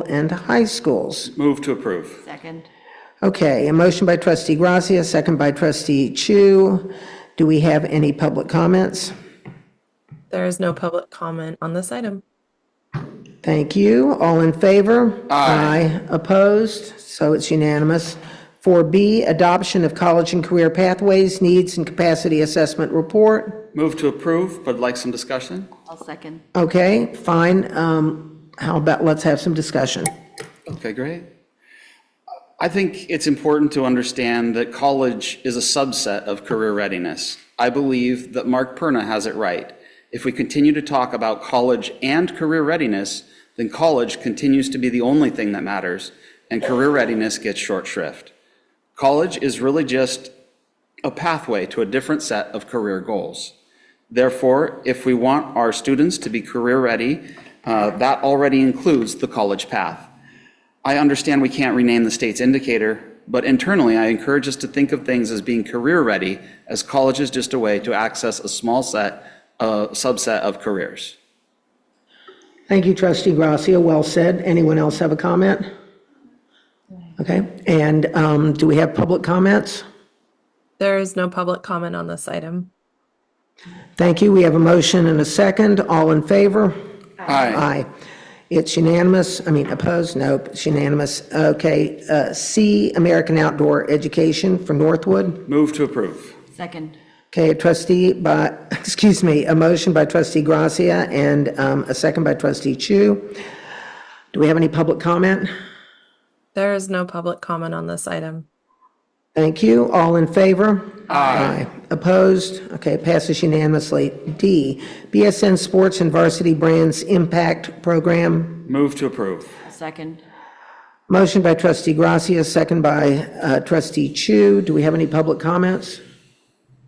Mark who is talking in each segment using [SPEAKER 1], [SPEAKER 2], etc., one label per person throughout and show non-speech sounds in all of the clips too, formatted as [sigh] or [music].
[SPEAKER 1] and high schools.
[SPEAKER 2] Move to approve.
[SPEAKER 3] Second.
[SPEAKER 1] Okay, a motion by trustee Gracia, a second by trustee Chu. Do we have any public comments?
[SPEAKER 4] There is no public comment on this item.
[SPEAKER 1] Thank you. All in favor? Aye. Opposed? So it's unanimous. 4B, adoption of college and career pathways, needs and capacity assessment report.
[SPEAKER 2] Move to approve, but like some discussion?
[SPEAKER 3] I'll second.
[SPEAKER 1] Okay, fine. Um, How about, let's have some discussion.
[SPEAKER 2] Okay, great. I think it's important to understand that college is a subset of career readiness. I believe that Mark Perna has it right. If we continue to talk about college and career readiness, then college continues to be the only thing that matters, and career readiness gets short shrift. College is really just a pathway to a different set of career goals. Therefore, if we want our students to be career ready, uh, that already includes the college path. I understand we can't rename the state's indicator, but internally, I encourage us to think of things as being career-ready, as college is just a way to access a small set, uh, subset of careers.
[SPEAKER 1] Thank you, trustee Gracia. Well said. Anyone else have a comment? Okay, and um, do we have public comments?
[SPEAKER 4] There is no public comment on this item.
[SPEAKER 1] Thank you. We have a motion and a second. All in favor?
[SPEAKER 2] Aye.
[SPEAKER 1] Aye. It's unanimous. I mean, opposed? Nope, it's unanimous. Okay, uh, C, American Outdoor Education for Northwood.
[SPEAKER 2] Move to approve.
[SPEAKER 3] Second.
[SPEAKER 1] Okay, a trustee by, [laughs] excuse me, a motion by trustee Gracia and um, a second by trustee Chu. Do we have any public comment?
[SPEAKER 4] There is no public comment on this item.
[SPEAKER 1] Thank you. All in favor? Aye. Opposed? Okay, passes unanimously. D, BSN Sports and Varsity Brands Impact Program.
[SPEAKER 2] Move to approve.
[SPEAKER 3] Second.
[SPEAKER 1] Motion by trustee Gracia, second by uh, trustee Chu. Do we have any public comments?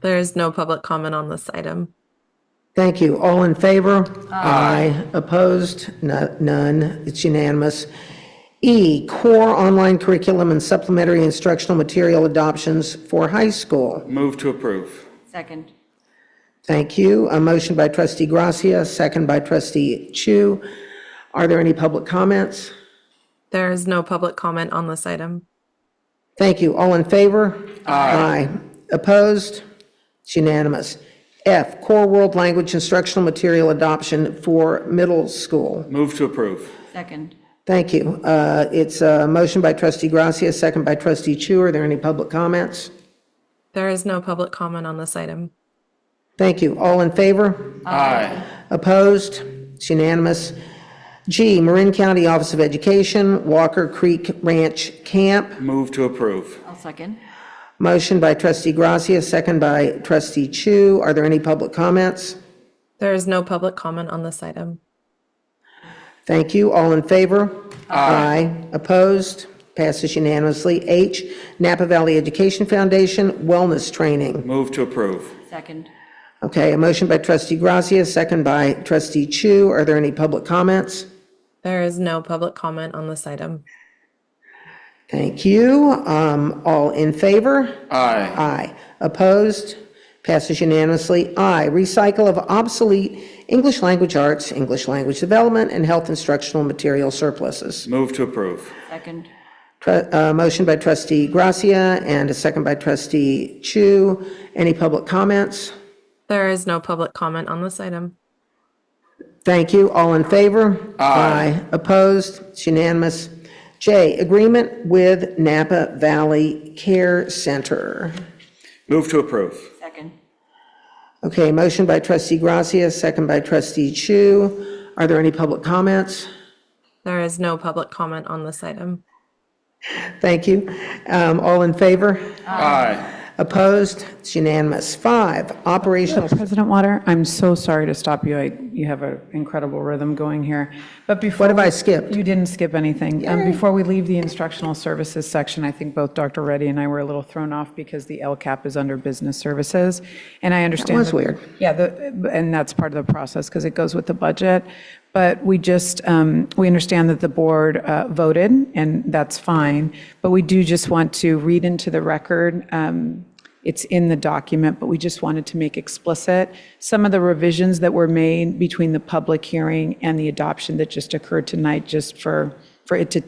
[SPEAKER 4] There is no public comment on this item.
[SPEAKER 1] Thank you. All in favor? Aye. Opposed? No- None. It's unanimous. E, Core Online Curriculum and Supplementary Instructional Material Adoptions for High School.
[SPEAKER 2] Move to approve.
[SPEAKER 3] Second.
[SPEAKER 1] Thank you. A motion by trustee Gracia, second by trustee Chu. Are there any public comments?
[SPEAKER 4] There is no public comment on this item.
[SPEAKER 1] Thank you. All in favor? Aye. Opposed? It's unanimous. F, Core World Language Instructional Material Adoption for Middle School.
[SPEAKER 2] Move to approve.
[SPEAKER 3] Second.
[SPEAKER 1] Thank you. Uh, It's a motion by trustee Gracia, second by trustee Chu. Are there any public comments?
[SPEAKER 4] There is no public comment on this item.
[SPEAKER 1] Thank you. All in favor?
[SPEAKER 2] Aye.
[SPEAKER 1] Opposed? It's unanimous. G, Marin County Office of Education, Walker Creek Ranch Camp.
[SPEAKER 2] Move to approve.
[SPEAKER 3] I'll second.
[SPEAKER 1] Motion by trustee Gracia, second by trustee Chu. Are there any public comments?
[SPEAKER 4] There is no public comment on this item.
[SPEAKER 1] Thank you. All in favor? Aye. Opposed? Passes unanimously. H, Napa Valley Education Foundation Wellness Training.
[SPEAKER 2] Move to approve.
[SPEAKER 3] Second.
[SPEAKER 1] Okay, a motion by trustee Gracia, second by trustee Chu. Are there any public comments?
[SPEAKER 4] There is no public comment on this item.
[SPEAKER 1] Thank you. Um, All in favor?
[SPEAKER 2] Aye.
[SPEAKER 1] Aye. Opposed? Passes unanimously. I, recycle of obsolete English language arts, English language development, and health instructional material surpluses.
[SPEAKER 2] Move to approve.
[SPEAKER 3] Second.
[SPEAKER 1] Tru- uh, Motion by trustee Gracia and a second by trustee Chu. Any public comments?
[SPEAKER 4] There is no public comment on this item.
[SPEAKER 1] Thank you. All in favor? Aye. Opposed? It's unanimous. J, agreement with Napa Valley Care Center.
[SPEAKER 2] Move to approve.
[SPEAKER 3] Second.
[SPEAKER 1] Okay, motion by trustee Gracia, second by trustee Chu. Are there any public comments?
[SPEAKER 4] There is no public comment on this item.
[SPEAKER 1] Thank you. Um, All in favor?
[SPEAKER 2] Aye.
[SPEAKER 1] Opposed? It's unanimous. Five, operational,
[SPEAKER 5] President Water, I'm so sorry to stop you. I, you have an incredible rhythm going here. But before.
[SPEAKER 1] What have I
[SPEAKER 5] we-
[SPEAKER 1] skipped?
[SPEAKER 5] You didn't skip anything. Um, Before we leave the instructional services section, I think both Dr. Reddy and I were a little thrown off because the LCAP is under business services. And I understand.
[SPEAKER 1] was weird.
[SPEAKER 5] Yeah, the, and that's part of the process because it goes with the budget. But we just, um, we understand that the board uh, voted and that's fine. But we do just want to read into the record, um, it's in the document, but we just wanted to make explicit some of the revisions that were made between the public hearing and the adoption that just occurred tonight, just for for it to